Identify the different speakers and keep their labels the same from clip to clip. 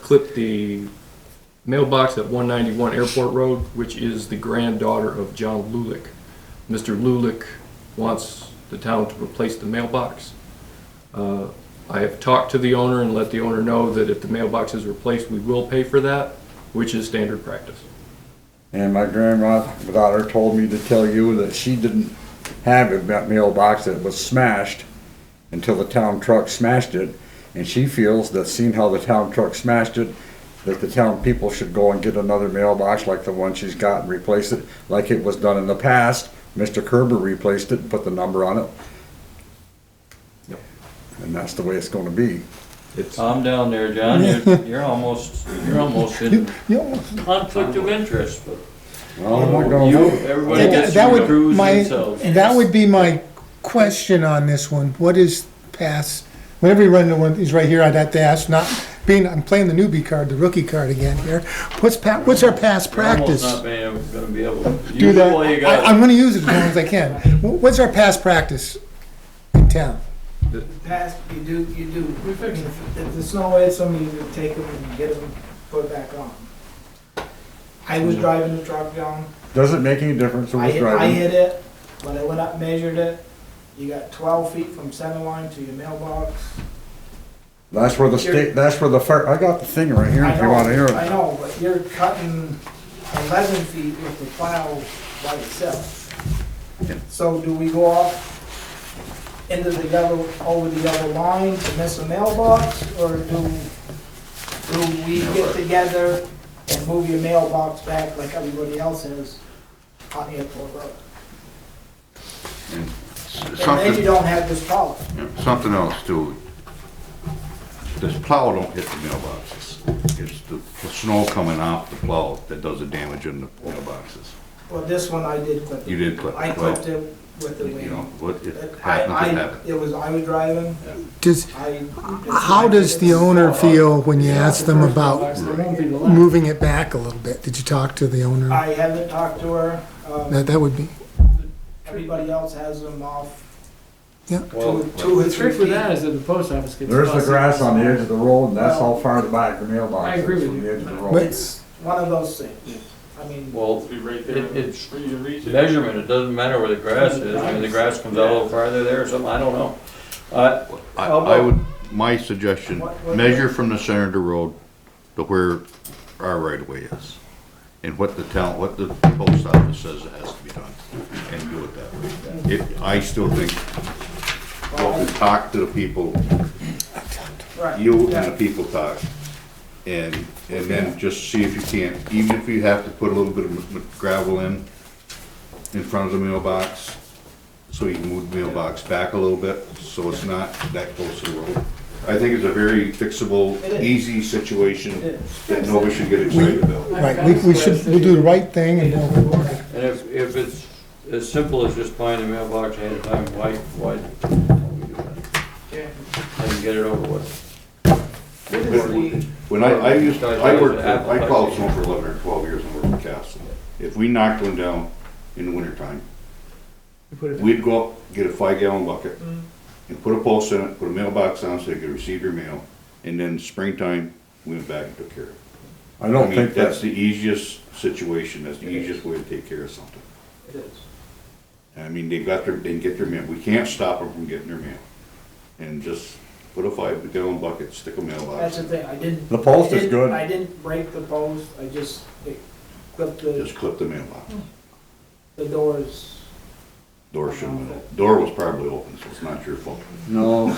Speaker 1: clip the mailbox at 191 Airport Road, which is the granddaughter of John Lulick. Mr. Lulick wants the town to replace the mailbox. Uh, I have talked to the owner and let the owner know that if the mailbox is replaced, we will pay for that, which is standard practice.
Speaker 2: And my granddaughter told me to tell you that she didn't have a ma- mailbox that was smashed until the town truck smashed it. And she feels that seeing how the town truck smashed it, that the town people should go and get another mailbox like the one she's got and replace it like it was done in the past. Mr. Kerber replaced it and put the number on it.
Speaker 1: Yep.
Speaker 2: And that's the way it's gonna be.
Speaker 1: It's,
Speaker 3: Calm down there, John, you're, you're almost, you're almost in
Speaker 4: Yeah,
Speaker 3: conflict of interest, but
Speaker 2: Well, I'm not gonna
Speaker 3: you,
Speaker 2: vote.
Speaker 3: everybody gets
Speaker 4: that
Speaker 3: to
Speaker 4: would,
Speaker 3: recruit
Speaker 4: my,
Speaker 3: themselves.
Speaker 4: that would be my question on this one. What is pass? Whenever you run into one, he's right here, I'd have to ask, not being, I'm playing the newbie card, the rookie card again here. What's pa, what's our past
Speaker 3: You're almost
Speaker 4: practice?
Speaker 3: not being, gonna be able,
Speaker 4: Do
Speaker 3: usually
Speaker 4: that.
Speaker 3: you
Speaker 4: I- I'm
Speaker 3: got,
Speaker 4: gonna use it as long as I can. Wh- What's our past practice in town?
Speaker 5: past, you do, you do, if if the snow hits them, you take them and get them, put it back on. I was driving the truck down,
Speaker 2: Doesn't make any difference who
Speaker 5: I
Speaker 2: was
Speaker 5: hit, I
Speaker 2: driving.
Speaker 5: hit it, when I went up, measured it, you got twelve feet from center line to your mailbox.
Speaker 2: That's where the state, that's where the fire, I got the thing right here
Speaker 5: I
Speaker 2: if you
Speaker 5: know-
Speaker 2: wanna hear it.
Speaker 5: I know, but you're cutting eleven feet with the plow by itself. So do we go off into the yellow, over the yellow line to miss a mailbox, or do, do we get together and move your mailbox back like everybody else is on Airport Road? And then you
Speaker 6: Something,
Speaker 5: don't have this problem.
Speaker 6: something else too. This plow don't hit the mailboxes. It's the the snow coming off the plow that does the damage in the mailboxes.
Speaker 5: Well, this one I did clip.
Speaker 6: You did clip it,
Speaker 5: I
Speaker 6: well,
Speaker 5: clipped it with the
Speaker 6: You know,
Speaker 5: wing.
Speaker 6: what, it
Speaker 5: I,
Speaker 6: happened, it
Speaker 5: I,
Speaker 6: happened.
Speaker 5: it was, I was driving,
Speaker 4: Does,
Speaker 5: I.
Speaker 4: how does the owner feel when you ask them about moving it back a little bit? Did you talk to the owner?
Speaker 5: I haven't talked to her, um,
Speaker 4: That, that would be,
Speaker 5: everybody else has them off
Speaker 3: well,
Speaker 5: two, two or
Speaker 7: The
Speaker 5: three
Speaker 7: trick with that
Speaker 5: feet.
Speaker 7: is that the post office gets.
Speaker 2: There's the
Speaker 7: fussy.
Speaker 2: grass on the edge of the road, and that's how far back the
Speaker 7: I
Speaker 2: mailbox
Speaker 7: agree
Speaker 2: is
Speaker 7: with
Speaker 2: from
Speaker 7: you.
Speaker 2: the edge of the road.
Speaker 4: but
Speaker 5: One of those things, I mean,
Speaker 3: well,
Speaker 8: Be right
Speaker 3: there on the
Speaker 8: It's free to reach
Speaker 3: measurement, it doesn't matter where the grass is, I mean, the grass comes out a little farther there or something, I don't know. Uh,
Speaker 6: I,
Speaker 3: How
Speaker 6: I
Speaker 3: about-
Speaker 6: would, my suggestion,
Speaker 5: What- what-
Speaker 6: measure from the center of the road to where our right of way is. And what the town, what the post office says it has to be done, and do it that way. It, I still think, well, to talk to the people,
Speaker 5: right.
Speaker 6: you
Speaker 5: yeah.
Speaker 6: and the people talk. And, and then just see if you can't, even if you have to put a little bit of m- gravel in, in front of the mailbox, so you can move the mailbox back a little bit, so it's not that close to the road. I think it's a very fixable,
Speaker 5: It is.
Speaker 6: easy
Speaker 5: It
Speaker 6: situation
Speaker 5: is.
Speaker 6: that nobody should get excited about.
Speaker 4: Right, we, we should, we'll do the right thing and we'll,
Speaker 3: and if, if it's as simple as just buying the mailbox ahead of time, why, why don't we do that?
Speaker 5: Yeah.
Speaker 3: And get it over with.
Speaker 5: What is the,
Speaker 6: When I, I used, I worked, for- I plowed snow for eleven or twelve years in Worthing Castle. If we knocked one down in the wintertime, we'd go up, get a five gallon bucket and put a post in it, put a mailbox on so they could receive your mail. And then springtime, we went back and took care of it.
Speaker 2: I don't
Speaker 6: mean,
Speaker 2: think
Speaker 6: That's
Speaker 2: that's,
Speaker 6: the easiest situation, that's the easiest way to take care of something.
Speaker 5: it is.
Speaker 6: I mean, they've got their, they can get their mail, we can't stop them from getting their mail. And just put a five gallon bucket, stick a
Speaker 5: That's
Speaker 6: mailbox,
Speaker 5: the
Speaker 6: in,
Speaker 5: thing, I didn't.
Speaker 2: The post
Speaker 5: I
Speaker 2: is
Speaker 5: didn't-
Speaker 2: good.
Speaker 5: I didn't break the post, I just it clipped the,
Speaker 6: just clip the mailbox.
Speaker 5: the doors.
Speaker 6: Door shouldn't have been open. Door was probably open, so it's not your fault.
Speaker 2: no,
Speaker 5: No,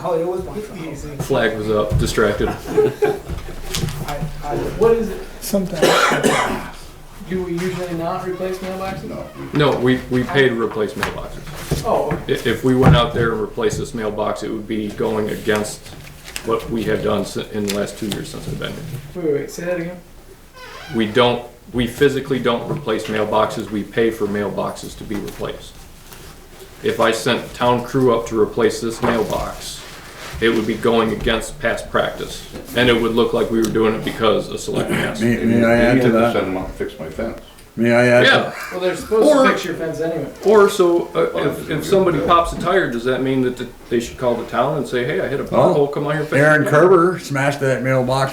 Speaker 5: Oh, it was my fault.
Speaker 1: flag was up, distracted.
Speaker 5: I, I,
Speaker 7: What is it,
Speaker 4: sometimes,
Speaker 7: do we usually not replace mailboxes?
Speaker 6: No.
Speaker 1: No, we, we pay to replace mailboxes.
Speaker 7: Oh, okay.
Speaker 1: I- If we went out there and replaced this mailbox, it would be going against what we have done si- in the last two years since I've been here.
Speaker 7: wait, wait, wait, say that again?
Speaker 1: We don't, we physically don't replace mailboxes, we pay for mailboxes to be replaced. If I sent town crew up to replace this mailbox, it would be going against past practice. And it would look like we were doing it because a selectman asked.
Speaker 2: may,
Speaker 6: Maybe-
Speaker 2: may I
Speaker 6: maybe
Speaker 2: add to
Speaker 6: have
Speaker 2: that?
Speaker 6: Send them out and fix my fence.
Speaker 2: May I add? to-
Speaker 1: Yeah,
Speaker 7: Well, they're supposed
Speaker 1: Or-
Speaker 7: to fix your fence anyway.
Speaker 1: or so, uh, if, if somebody pops a tire, does that mean that th- they should call the town and say, hey, I hit a pothole, come on here. and fix it"?
Speaker 2: Aaron Kerber smashed that mailbox